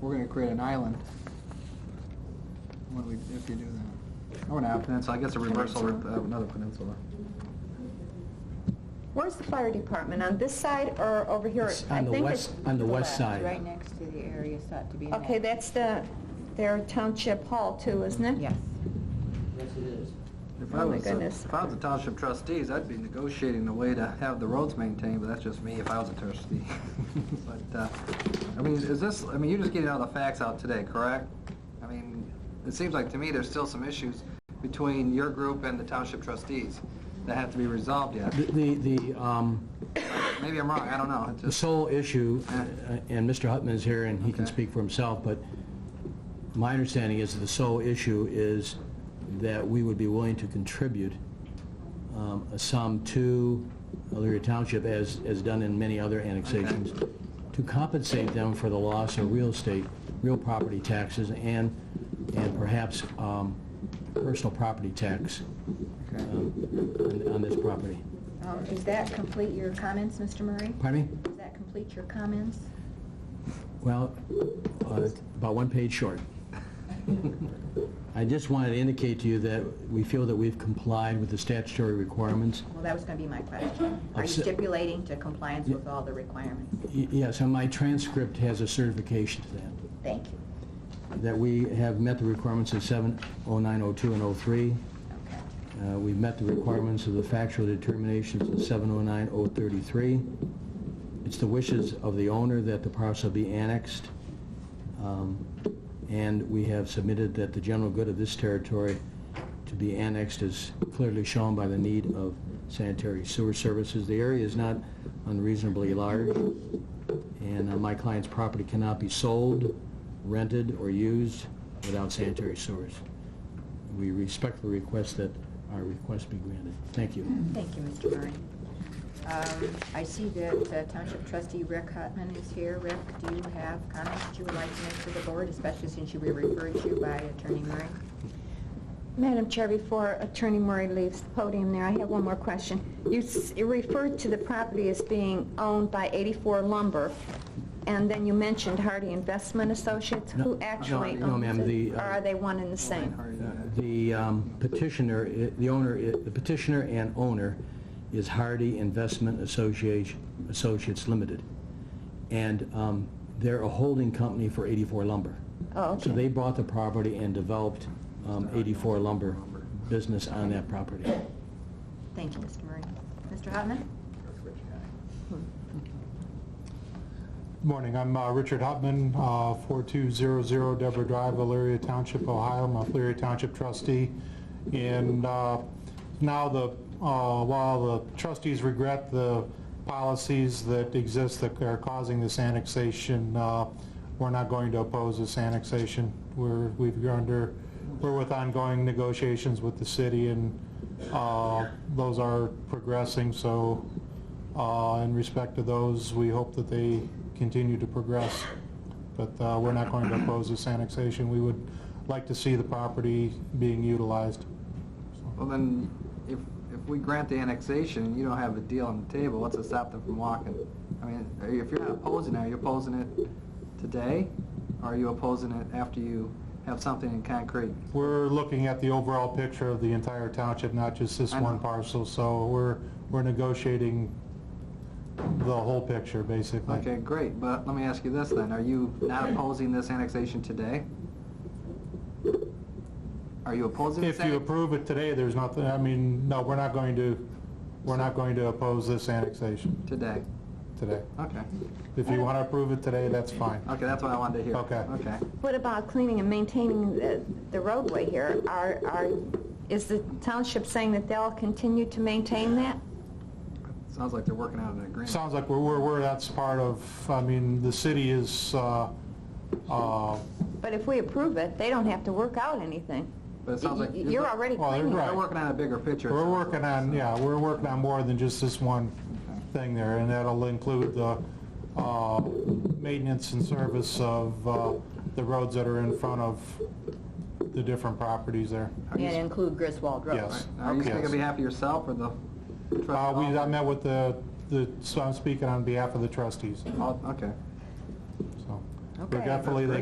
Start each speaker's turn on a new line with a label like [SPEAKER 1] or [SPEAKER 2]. [SPEAKER 1] we're gonna create an island. When we, if you do that. Oh, now peninsula, I guess a reversal of uh, another peninsula.
[SPEAKER 2] Where's the fire department, on this side or over here?
[SPEAKER 3] It's
[SPEAKER 2] I
[SPEAKER 3] on the
[SPEAKER 2] think
[SPEAKER 3] west,
[SPEAKER 2] it's-
[SPEAKER 3] on the west side.
[SPEAKER 4] Right next to the area sought to be annexed.
[SPEAKER 2] Okay, that's the, their township hall too, isn't it?
[SPEAKER 4] Yes.
[SPEAKER 5] Yes, it is.
[SPEAKER 1] If I
[SPEAKER 2] Oh, my
[SPEAKER 1] was, a-
[SPEAKER 2] goodness.
[SPEAKER 1] if I was a township trustees, I'd be negotiating the way to have the roads maintained, but that's just me if I was a trustee. But, uh, I mean, is this, I mean, you're just getting all the facts out today, correct? I mean, it seems like to me there's still some issues between your group and the township trustees that have to be resolved yet.
[SPEAKER 3] The, the, the, um,
[SPEAKER 1] Maybe I'm wrong, I don't know. It's
[SPEAKER 3] the
[SPEAKER 1] just-
[SPEAKER 3] sole issue, uh, and Mr. Hutman is here and he can
[SPEAKER 1] Okay.
[SPEAKER 3] speak for himself, but my understanding is that the sole issue is that we would be willing to contribute um, a sum to Elyria Township, as, as done in many other annexations, to compensate them for the loss of real estate, real property taxes, and, and perhaps um, personal property tax
[SPEAKER 1] Okay.
[SPEAKER 3] um, on on this property.
[SPEAKER 4] Um, Does that complete your comments, Mr. Murray?
[SPEAKER 3] Pardon me?
[SPEAKER 4] Does that complete your comments?
[SPEAKER 3] Well, uh, about one page short. I just wanted to indicate to you that we feel that we've complied with the statutory requirements.
[SPEAKER 4] Well, that was going to be my
[SPEAKER 3] Oh,
[SPEAKER 4] question. Are you
[SPEAKER 3] Upset-
[SPEAKER 4] stipulating to compliance with all the requirements?
[SPEAKER 3] Y- Yes, and my transcript has a certification to that,
[SPEAKER 4] Thank you.
[SPEAKER 3] that we have met the requirements of 70902 and 03.
[SPEAKER 4] Okay.
[SPEAKER 3] Uh, We've met the requirements of the factual determinations of 709033. It's the wishes of the owner that the parcel be annexed, Um, and we have submitted that the general good of this territory to be annexed is clearly shown by the need of sanitary sewer services. The area is not unreasonably large, and uh, my client's property cannot be sold, rented, or used without sanitary sewers. We respectfully request that our request be granted. Thank you.
[SPEAKER 4] Thank you, Mr. Murray. Um, I see that uh, Township Trustee Rick Hutman is here. Rick, do you have comments that you would like to make to the board, especially since you were referred to by Attorney Murray?
[SPEAKER 2] Madam Chair, before Attorney Murray leaves the podium there, I have one more question. You s- you referred to the property as being owned by 84 Lumber, and then you mentioned Hardy Investment Associates.
[SPEAKER 3] No,
[SPEAKER 2] Who actually
[SPEAKER 3] no, no,
[SPEAKER 2] owns
[SPEAKER 3] ma'am,
[SPEAKER 2] it?
[SPEAKER 3] the,
[SPEAKER 2] Or
[SPEAKER 3] uh,
[SPEAKER 2] are they one and the same?
[SPEAKER 3] The um, petitioner, i- the owner, i- the petitioner and owner is Hardy Investment Association- Associates Limited, and um, they're a holding company for 84 Lumber.
[SPEAKER 2] Oh, okay.
[SPEAKER 3] So they bought the property and developed um, 84 Lumber business on that property.
[SPEAKER 4] Thank you, Mr. Murray. Mr. Hutman?
[SPEAKER 6] Morning, I'm uh, Richard Hutman, uh, 4200 Deborah Drive, Elyria Township, Ohio. I'm a Elyria Township trustee. And uh, now the, uh, while the trustees regret the policies that exist that are causing this annexation, uh, we're not going to oppose this annexation. We're, we've under, we're with ongoing negotiations with the city and uh, those are progressing, so uh, In respect to those, we hope that they continue to progress, but uh, we're not going to oppose this annexation. We would like to see the property being utilized.
[SPEAKER 1] Well, then, if, if we grant the annexation, and you don't have a deal on the table, what's to stop them from walking? I mean, are you- if you're not opposing it, are you opposing it today? Or are you opposing it after you have something in concrete?
[SPEAKER 6] We're looking at the overall picture of the entire township, not just this
[SPEAKER 1] I know.
[SPEAKER 6] one parcel, so we're, we're negotiating the whole picture, basically.
[SPEAKER 1] Okay, great, but let me ask you this then, are you not opposing this annexation today? Are you opposing this?
[SPEAKER 6] If you
[SPEAKER 1] annex-
[SPEAKER 6] approve it today, there's nothing, I mean, no, we're not going to, we're not going to oppose this annexation
[SPEAKER 1] Today,
[SPEAKER 6] today.
[SPEAKER 1] okay,
[SPEAKER 6] If you want to approve it today, that's fine.
[SPEAKER 1] okay, that's what I wanted to hear.
[SPEAKER 6] Okay.
[SPEAKER 1] Okay,
[SPEAKER 2] What about cleaning and maintaining the the roadway here? Are, are, is the township saying that they'll continue to maintain that?
[SPEAKER 1] sounds like they're working out an agreement.
[SPEAKER 6] Sounds like we're, we're, we're- that's part of, I mean, the city is, uh, uh,
[SPEAKER 2] But if we approve it, they don't have to work out anything.
[SPEAKER 1] But it sounds like.
[SPEAKER 2] Y- You're already
[SPEAKER 6] Well,
[SPEAKER 2] cleaning
[SPEAKER 6] right.
[SPEAKER 2] it.
[SPEAKER 1] They're working on a bigger picture. it
[SPEAKER 6] we're
[SPEAKER 1] sounds
[SPEAKER 6] working
[SPEAKER 1] like,
[SPEAKER 6] on,
[SPEAKER 1] so.
[SPEAKER 6] yeah, we're working on more than just this one thing there, and that'll include the uh, maintenance and service of uh, the roads that are in front of the different properties there.
[SPEAKER 4] And include Griswold Road.
[SPEAKER 6] Yes.
[SPEAKER 1] Are you
[SPEAKER 6] Okay.
[SPEAKER 1] going to be happy yourself or the trustee?
[SPEAKER 6] Uh, We, I met with the, the so I'm speaking on behalf of the trustees,
[SPEAKER 1] Oh, Okay.
[SPEAKER 6] so.
[SPEAKER 2] Okay.
[SPEAKER 6] Regretfully, they